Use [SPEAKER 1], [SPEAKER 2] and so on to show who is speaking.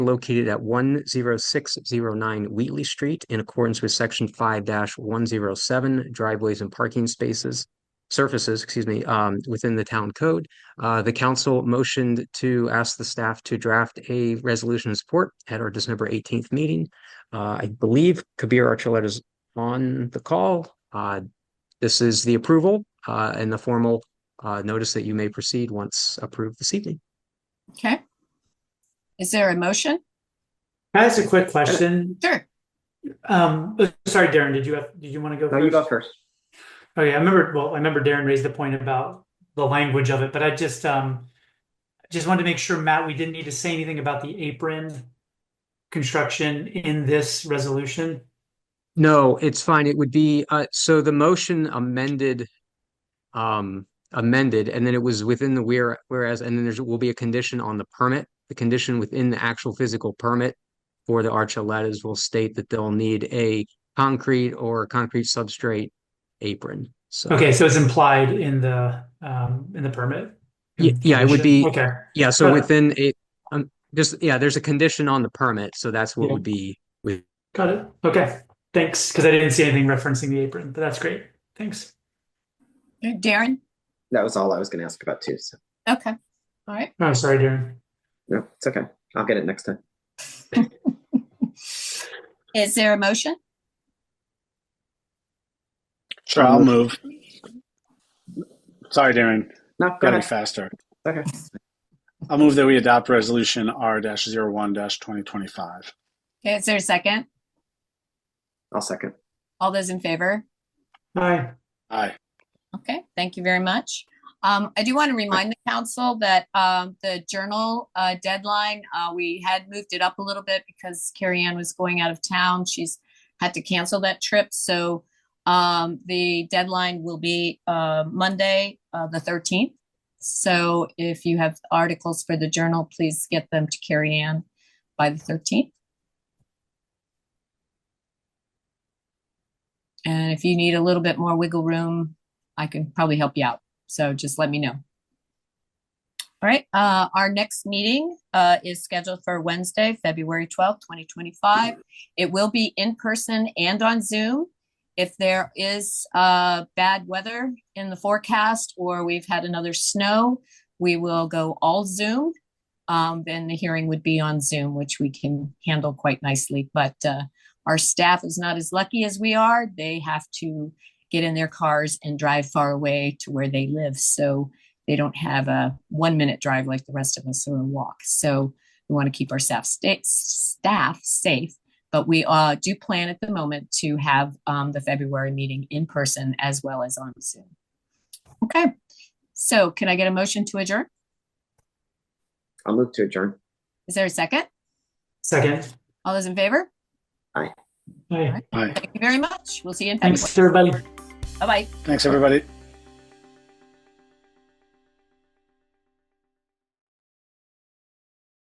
[SPEAKER 1] located at one zero six zero nine Wheatley Street in accordance with section five one zero seven driveways and parking spaces. Surfaces, excuse me, um, within the town code. Uh, the council motioned to ask the staff to draft a resolution of support at our December eighteenth meeting. Uh, I believe Kabir Archuleta is on the call. Uh, this is the approval, uh, and the formal, uh, notice that you may proceed once approved this evening.
[SPEAKER 2] Okay. Is there a motion?
[SPEAKER 3] Can I ask a quick question?
[SPEAKER 2] Sure.
[SPEAKER 3] Um, sorry, Darren, did you have, did you want to go?
[SPEAKER 4] No, you go
[SPEAKER 3] first?
[SPEAKER 4] first.
[SPEAKER 3] Okay, I remember, well, I remember Darren raised the point about the language of it, but I just, um, just wanted to make sure, Matt, we didn't need to say anything about the apron construction in this resolution.
[SPEAKER 1] No, it's fine. It would be, uh, so the motion amended, um, amended, and then it was within the where, whereas, and then there's, will be a condition on the permit. The condition within the actual physical permit for the Archeletas will state that they'll need a concrete or concrete substrate apron. So,
[SPEAKER 3] Okay, so it's implied in the, um, in the permit?
[SPEAKER 1] Ye- yeah, it would be-
[SPEAKER 3] Okay,
[SPEAKER 1] yeah, so
[SPEAKER 3] Uh,
[SPEAKER 1] within a, um, just, yeah, there's a condition on the permit, so that's what
[SPEAKER 3] Yeah.
[SPEAKER 1] would be.
[SPEAKER 3] got it. Okay, thanks, because I didn't see anything referencing the apron, but that's great. Thanks.
[SPEAKER 2] Darren?
[SPEAKER 4] That was all I was going to ask about too. So
[SPEAKER 2] Okay. All right.
[SPEAKER 3] Oh, sorry, Darren.
[SPEAKER 4] no, it's okay. I'll get it next time.
[SPEAKER 2] Is there a motion?
[SPEAKER 5] Sure, I'll move. Sorry, Darren.
[SPEAKER 4] No, go
[SPEAKER 5] Gotta be
[SPEAKER 4] ahead.
[SPEAKER 5] faster.
[SPEAKER 4] Okay.
[SPEAKER 5] I'll move that we adopt resolution R-01-2025.
[SPEAKER 2] Okay, Is there a second?
[SPEAKER 4] I'll second.
[SPEAKER 2] All those in favor?
[SPEAKER 3] Hi.
[SPEAKER 5] Aye.
[SPEAKER 2] Okay, thank you very much. Um, I do want to remind the council that, um, the journal, uh, deadline, uh, we had moved it up a little bit because Carrie Ann was going out of town. She's had to cancel that trip, so, um, the deadline will be, uh, Monday, uh, the thirteenth. So if you have articles for the journal, please get them to Carrie Ann by the thirteenth. And if you need a little bit more wiggle room, I can probably help you out. So just let me know. All right, uh, our next meeting, uh, is scheduled for Wednesday, February twelfth, twenty twenty-five. It will be in person and on Zoom. If there is, uh, bad weather in the forecast or we've had another snow, we will go all Zoom. Um, then the hearing would be on Zoom, which we can handle quite nicely, but, uh, our staff is not as lucky as we are. They have to get in their cars and drive far away to where they live. So they don't have a one minute drive like the rest of us or a walk. So we want to keep our staff, sta- staff safe. But we uh, do plan at the moment to have um, the February meeting in person as well as on Zoom. Okay. So can I get a motion to adjourn?
[SPEAKER 4] I'll move to adjourn.
[SPEAKER 2] Is there a second?
[SPEAKER 3] Second.
[SPEAKER 2] All those in favor?
[SPEAKER 3] Hi.
[SPEAKER 5] Aye.
[SPEAKER 2] Thank you very much. We'll see you in February.
[SPEAKER 3] Thanks, everybody.
[SPEAKER 2] Bye bye.
[SPEAKER 5] Thanks, everybody.